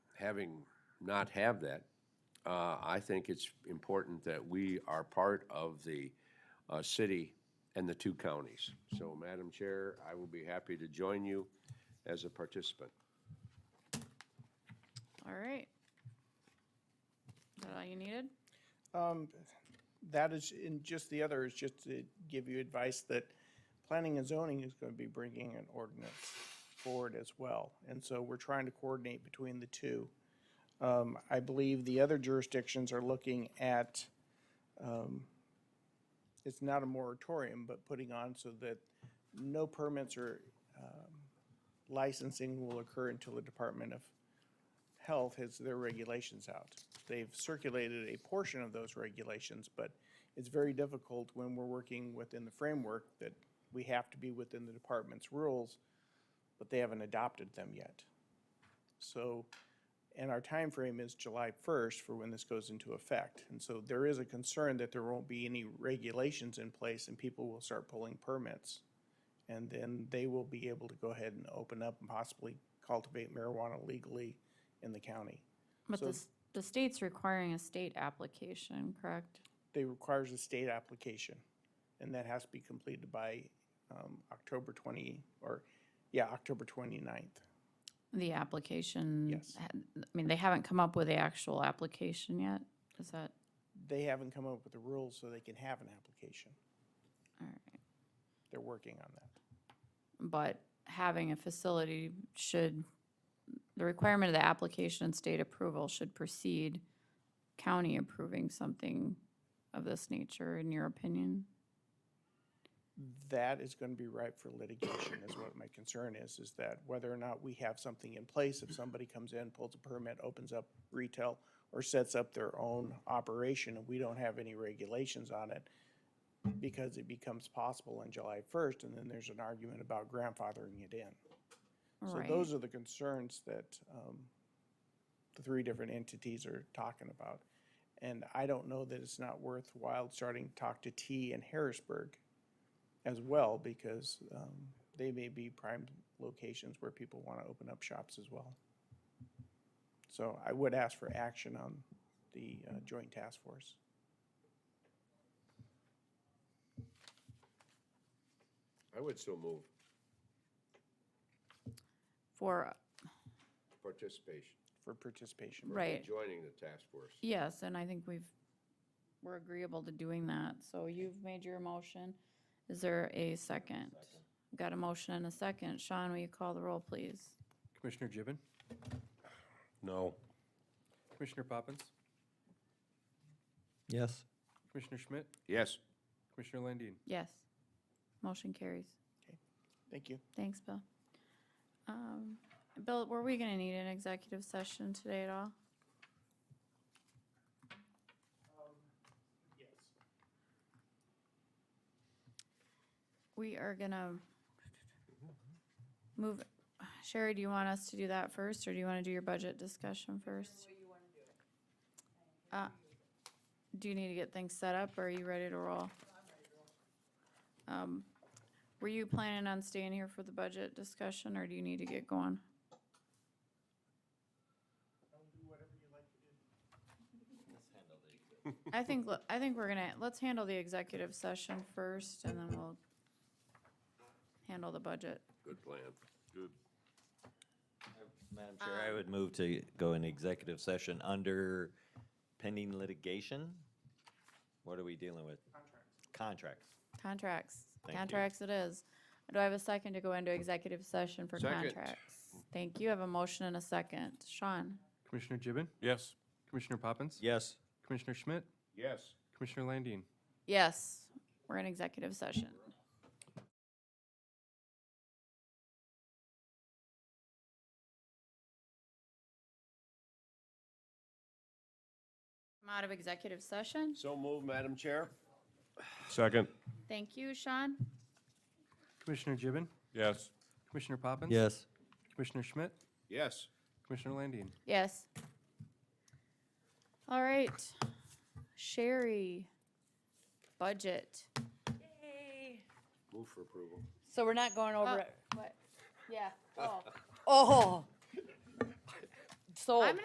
having not have that, uh, I think it's important that we are part of the uh, city and the two counties. So, Madam Chair, I will be happy to join you as a participant. All right. Is that all you needed? Um, that is, and just the other is just to give you advice that planning and zoning is gonna be bringing an ordinance forward as well. And so we're trying to coordinate between the two. Um, I believe the other jurisdictions are looking at, um, it's not a moratorium, but putting on so that no permits or, um, licensing will occur until the Department of Health has their regulations out. They've circulated a portion of those regulations, but it's very difficult when we're working within the framework that we have to be within the department's rules, but they haven't adopted them yet. So, and our time frame is July 1st for when this goes into effect. And so there is a concern that there won't be any regulations in place and people will start pulling permits. And then they will be able to go ahead and open up and possibly cultivate marijuana legally in the county. But So- the, s- the state's requiring a state application, correct? They requires a state application, and that has to be completed by um, October 20, or, yeah, October 29th. The application? Yes. ha- I mean, they haven't come up with the actual application yet? Is that, They haven't come up with the rules so they can have an application. all right. They're working on that. But having a facility should, the requirement of the application and state approval should precede county approving something of this nature, in your opinion? That is going to be ripe for litigation, is what my concern is, is that whether or not we have something in place, if somebody comes in, pulls a permit, opens up retail, or sets up their own operation, and we don't have any regulations on it, because it becomes possible on July 1st, and then there's an argument about grandfathering it in. So Right. those are the concerns that um, the three different entities are talking about. And I don't know that it's not worthwhile starting to talk to T and Harrisburg as well, because um, they may be prime locations where people want to open up shops as well. So I would ask for action on the uh, joint task force. I would so move For, participation, for participation. right. joining the task force. Yes, and I think we've, we're agreeable to doing that. So you've made your motion. Is there a second? Got a motion and a second. Sean, will you call the roll, please? Commissioner Gibbon, No. Commissioner Poppins, Yes. Commissioner Schmidt, Yes. Commissioner Landine. Yes. Motion carries. Thank you. Thanks, Bill. Um, Bill, were we gonna need an executive session today at all? We are gonna move, Sherry, do you want us to do that first, or do you wanna do your budget discussion first? Uh, Do you need to get things set up, or are you ready to roll? Um, were you planning on staying here for the budget discussion, or do you need to get going? I think, le- I think we're gonna, let's handle the executive session first, and then we'll handle the budget. Good plan. Good. Madam Chair, I would move to go in executive session under pending litigation. What are we dealing with? Contracts. Contracts, Thank you. contracts it is. Do I have a second to go into executive session for Second. contracts? Thank you, I have a motion and a second. Sean? Commissioner Gibbon, Yes. Commissioner Poppins. Yes. Commissioner Schmidt, Yes. Commissioner Landine. Yes, we're in executive session. I'm out of executive session. So move, Madam Chair. Second. Thank you, Sean. Commissioner Gibbon, Yes. Commissioner Poppins. Yes. Commissioner Schmidt, Yes. Commissioner Landine. Yes. All right. Sherry, budget. Move for approval. So we're not going over it. Oh. What? Yeah. Oh. So. I'm